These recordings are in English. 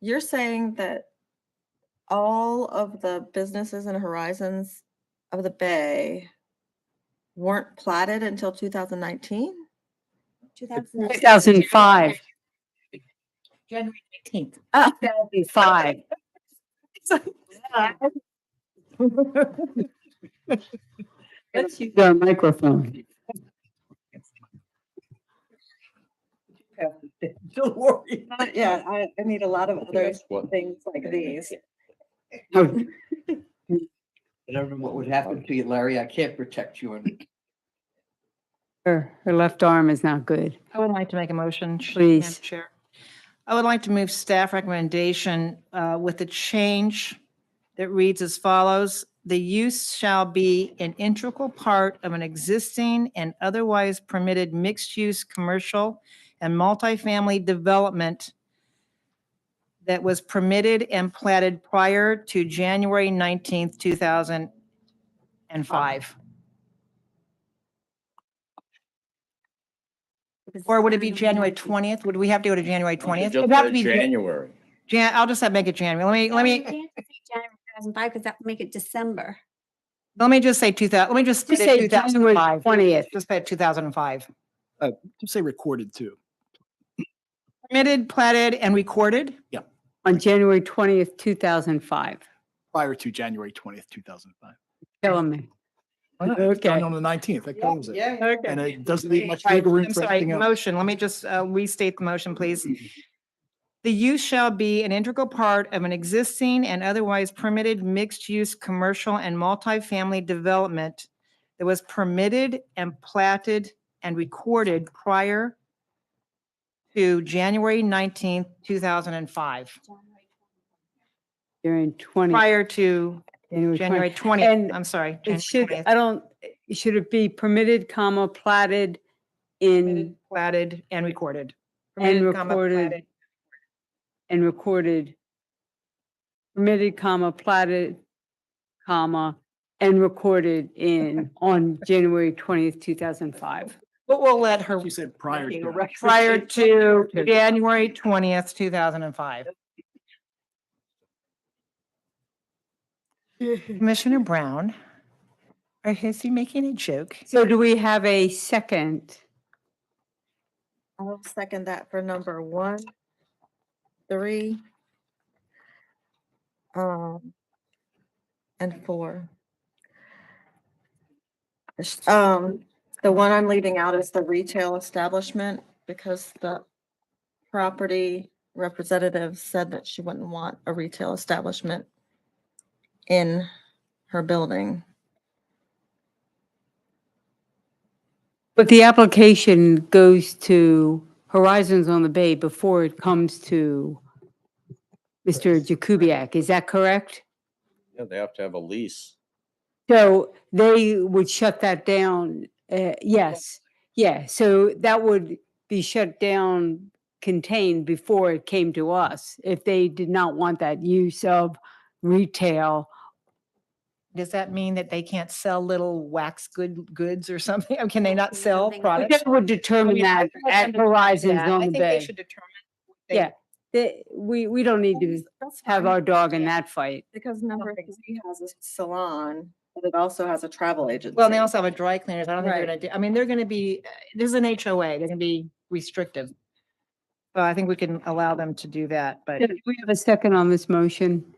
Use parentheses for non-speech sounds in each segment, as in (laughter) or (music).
You're saying that all of the businesses and horizons of the bay weren't platted until 2019? 2005. January (laughs) eighteenth. Oh. (laughs) 2005. Let's use our microphone. Don't worry. Yeah, I, I need a lot of other That's what- things like these. Oh, I don't know what would happen to you, Larry. I can't protect you. And Her, her left arm is not good. I would like to make a motion. Sh- Please. Madam Chair. I would like to move staff recommendation uh, with a change that reads as follows. The use shall be an integral part of an existing and otherwise permitted mixed-use commercial and multifamily development that was permitted and platted prior to January 19th, 2005. Or would it be January 20th? Would we have to go to January 20th? Just It'd have to said be Jan- January. Jan, I'll just have- make it January. Let me, let You me, can't say January 2005 because that would make it December. let me just say 2000, let me just Just say say January 2005. 20th. Just say 2005. Just say recorded too. Permitted, platted, and recorded? On January 20th, 2005. prior to January twentieth, two thousand five. Killing me. Done Okay. on the nineteenth, that covers it. And Okay. it doesn't leave much Right, wiggle room I'm for sorry, anything else. motion, let me just uh, restate the motion, please. The use shall be an integral part of an existing and otherwise permitted mixed-use commercial and multifamily development that was permitted and platted and recorded prior to January 19th, 2005, January 20th. prior to January 20th, And I'm sorry. It January should, 20th, I don't, should it be permitted, comma, platted in, Platted and recorded. and Permitted, comma, platted. recorded? And recorded. Permitted, comma, platted, comma, and recorded in, on January 20th, 2005. But we'll let her You said prior making a to. prior to January 20th, 2005. Commissioner Brown, or is he making a joke? So do we have a second? I'll second that for number one, three, um, and four. Sh- Um, the one I'm leaving out is the retail establishment because the property representative said that she wouldn't want a retail establishment in her building. But the application goes to Horizons on the Bay before it comes to Mr. Jakubiec, is that correct? Yeah, they have to have a lease. So they would shut that down, uh, yes, yeah, so that would be shut down, contained before it came to us, if they did not want that use of retail. Does that mean that they can't sell little wax good, goods or something? Or Can they not sell Something like products? That would determine mean, I that think I at understand Horizons Yeah, I on think the they Bay. should determine. they- Yeah. They- We, we don't need to That's have fine. our dog in that fight. Because number three has a salon, but it also has a travel agency. Well, and they also have a dry cleaners. I don't think they're Right. gonna do, I mean, they're gonna be, uh, there's an HOA, they're gonna be restrictive. So I think we can allow them to do that, but. Do we have a second on this motion?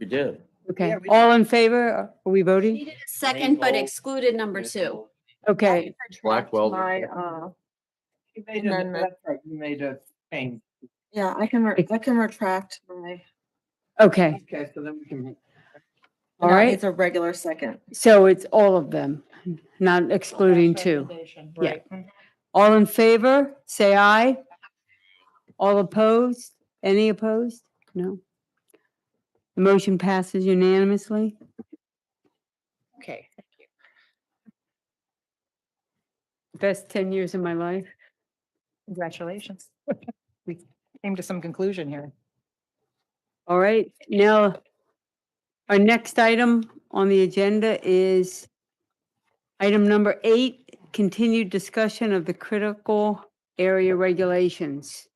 We did. Okay, Yeah, we- all in favor? Are we voting? Needed a second, but Rainbow. excluded number two. Okay, Blackwell. My, uh, You made And a- then the- that's right, you made a change. yeah, I can, re- I can retract my. okay, Okay, so then we can. all no, it right. needs a regular second. So it's all of them, not excluding two. Yeah. Right. All in favor, say aye. All opposed? Any opposed? No. The motion passes unanimously. Okay. Best 10 years of my life. Congratulations. (laughs) We came to some conclusion here. All right, now, our next item on the agenda is item number eight, continued discussion of the critical area regulations.